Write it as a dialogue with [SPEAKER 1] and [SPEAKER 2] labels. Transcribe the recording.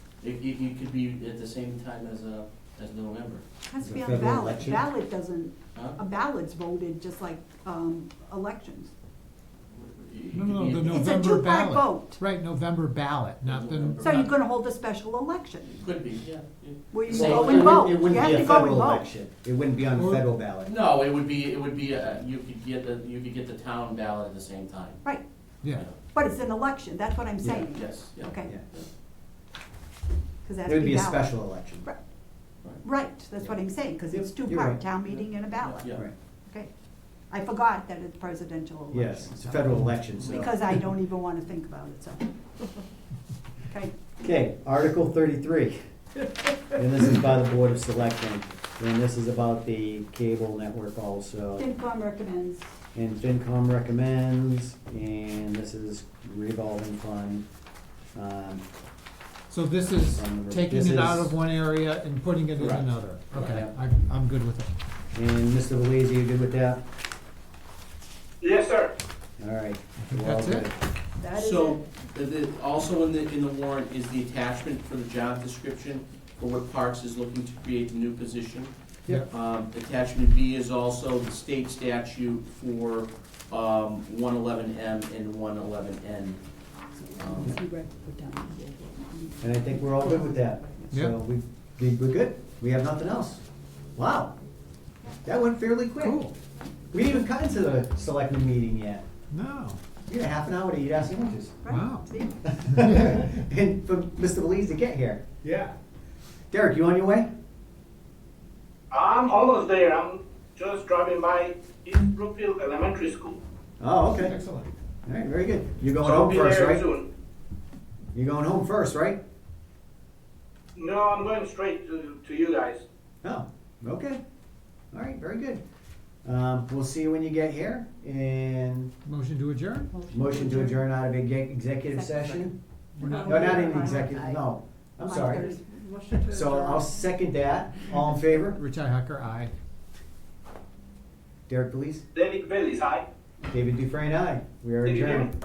[SPEAKER 1] It, it, it could be at the same time as, uh, as November,
[SPEAKER 2] Has to
[SPEAKER 3] The
[SPEAKER 2] be on a
[SPEAKER 3] federal
[SPEAKER 2] ballot.
[SPEAKER 3] election?
[SPEAKER 2] Ballot doesn't,
[SPEAKER 1] huh?
[SPEAKER 2] a ballot's voted just like, um, elections.
[SPEAKER 1] It
[SPEAKER 4] No,
[SPEAKER 1] could
[SPEAKER 4] no,
[SPEAKER 1] be
[SPEAKER 4] the
[SPEAKER 1] at-
[SPEAKER 2] It's a
[SPEAKER 4] November
[SPEAKER 2] two-part
[SPEAKER 4] ballot.
[SPEAKER 2] vote.
[SPEAKER 4] Right, November ballot, not the.
[SPEAKER 1] November.
[SPEAKER 2] So you're
[SPEAKER 4] not-
[SPEAKER 2] gonna hold a special election
[SPEAKER 1] Could be, yeah. yeah.
[SPEAKER 2] where you
[SPEAKER 3] Same.
[SPEAKER 2] go
[SPEAKER 3] It
[SPEAKER 2] and
[SPEAKER 3] wouldn't-
[SPEAKER 2] vote.
[SPEAKER 3] It
[SPEAKER 2] Oh, You
[SPEAKER 3] wouldn't
[SPEAKER 2] have
[SPEAKER 3] be
[SPEAKER 2] to
[SPEAKER 3] a
[SPEAKER 2] go and
[SPEAKER 3] federal
[SPEAKER 2] vote.
[SPEAKER 3] election. It wouldn't be on the
[SPEAKER 4] Or-
[SPEAKER 3] federal ballot.
[SPEAKER 1] No, it would be, it would be, uh, you could get the, you could get the town ballot at the same time.
[SPEAKER 2] Right,
[SPEAKER 1] you
[SPEAKER 4] Yeah,
[SPEAKER 1] know.
[SPEAKER 2] but it's an election, that's what I'm
[SPEAKER 3] Yeah.
[SPEAKER 2] saying.
[SPEAKER 1] Yes, yeah.
[SPEAKER 2] Okay,
[SPEAKER 3] Yeah.
[SPEAKER 2] because that's
[SPEAKER 3] It would be a
[SPEAKER 2] ballot.
[SPEAKER 3] special election.
[SPEAKER 2] Right. Right, that's what I'm saying, because it's
[SPEAKER 3] Yep, you're right.
[SPEAKER 2] two-part, town meeting and a ballot.
[SPEAKER 1] Yeah.
[SPEAKER 3] Right.
[SPEAKER 2] Okay, I forgot that it's presidential election.
[SPEAKER 3] Yes, it's a
[SPEAKER 2] so-
[SPEAKER 3] federal election, so.
[SPEAKER 2] Because I don't even want to think about it, so. Okay,
[SPEAKER 3] Okay, Article thirty-three. And this is by the Board of Selectmen, and this is about the cable network also.
[SPEAKER 2] FinCom recommends,
[SPEAKER 3] And FinCom recommends, and this is revolving fund. Um,
[SPEAKER 4] so this is taking
[SPEAKER 3] This
[SPEAKER 4] it out
[SPEAKER 3] is-
[SPEAKER 4] of one area and putting it in
[SPEAKER 3] Correct.
[SPEAKER 4] another. Okay,
[SPEAKER 3] Correct.
[SPEAKER 4] I, I'm good with it.
[SPEAKER 3] And Mr. Belize, you good with that?
[SPEAKER 5] Yes, sir.
[SPEAKER 3] All right.
[SPEAKER 4] think
[SPEAKER 3] we're all
[SPEAKER 4] that's it.
[SPEAKER 3] good.
[SPEAKER 2] that is
[SPEAKER 1] So,
[SPEAKER 2] it.
[SPEAKER 1] the- the- also in the, in the warrant is the attachment for the job description for what Parks is looking to create the new position.
[SPEAKER 4] Yeah.
[SPEAKER 1] Um, attachment B is also the state statute for, um, one eleven M and one eleven N.
[SPEAKER 3] And I think we're all good with that.
[SPEAKER 4] Yeah.
[SPEAKER 3] So we, we- we're good. We have nothing else. Wow. That went fairly quick.
[SPEAKER 4] Cool.
[SPEAKER 3] We didn't even cut into the selectmen meeting yet.
[SPEAKER 4] No,
[SPEAKER 3] We had a half an hour to eat our sandwiches.
[SPEAKER 2] Right,
[SPEAKER 4] Wow.
[SPEAKER 2] see?
[SPEAKER 3] And for Mr. Belize to get here.
[SPEAKER 4] Yeah.
[SPEAKER 3] Derek, you on your way?
[SPEAKER 5] I'm almost there. I'm just driving by East Brookfield Elementary School.
[SPEAKER 3] Oh, okay.
[SPEAKER 4] excellent.
[SPEAKER 3] All right, very good. You're
[SPEAKER 5] So
[SPEAKER 3] going
[SPEAKER 5] I'll
[SPEAKER 3] home
[SPEAKER 5] be
[SPEAKER 3] first,
[SPEAKER 5] there
[SPEAKER 3] right?
[SPEAKER 5] soon.
[SPEAKER 3] You're going home first, right?
[SPEAKER 5] No, I'm going straight to, to you guys.
[SPEAKER 3] Oh, okay. All right, very good. Um, we'll see you when you get here and
[SPEAKER 4] Motion to adjourn?
[SPEAKER 3] motion to adjourn out of exe- executive session.
[SPEAKER 4] We're not-
[SPEAKER 3] No, not in executive, no. I'm sorry. So I'll second that. All in favor?
[SPEAKER 4] Richi Hacker, aye.
[SPEAKER 3] Derek Belize,
[SPEAKER 5] David Bailey's, hi.
[SPEAKER 3] David Dufresne, aye. We are
[SPEAKER 5] Did you hear me?
[SPEAKER 3] adjourned.